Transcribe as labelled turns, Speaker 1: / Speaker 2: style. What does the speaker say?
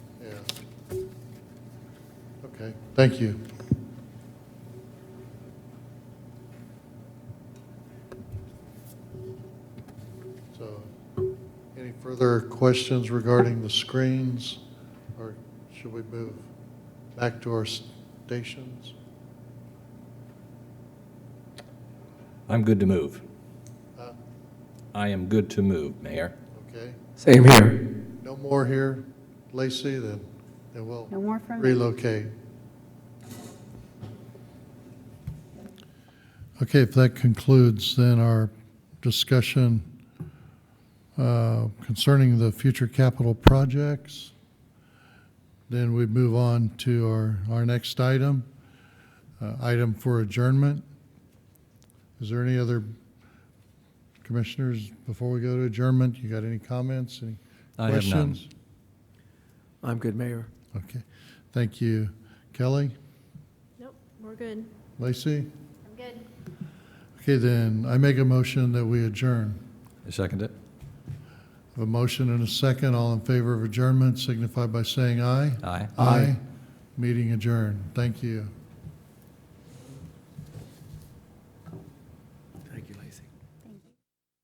Speaker 1: Okay, thank you. So, any further questions regarding the screens? Or should we move back to our stations?
Speaker 2: I'm good to move.
Speaker 1: Uh,
Speaker 2: I am good to move, Mayor.
Speaker 1: Okay,
Speaker 3: Same here.
Speaker 1: no more here, Lacey, then, then we'll
Speaker 4: No more from me.
Speaker 1: relocate. Okay, if that concludes then our discussion uh, concerning the future capital projects, then we move on to our, our next item, uh, item for adjournment. Is there any other commissioners, before we go to adjournment, you got any comments, any
Speaker 2: I have none.
Speaker 1: questions?
Speaker 3: I'm good, Mayor.
Speaker 1: Okay, thank you. Kelly,
Speaker 5: Nope, we're good.
Speaker 1: Lacey?
Speaker 5: I'm good.
Speaker 1: Okay, then, I make a motion that we adjourn.
Speaker 2: You second it?
Speaker 1: A motion and a second, all in favor of adjournment signify by saying aye.
Speaker 2: Aye.
Speaker 1: Aye. Meeting adjourned. Thank you.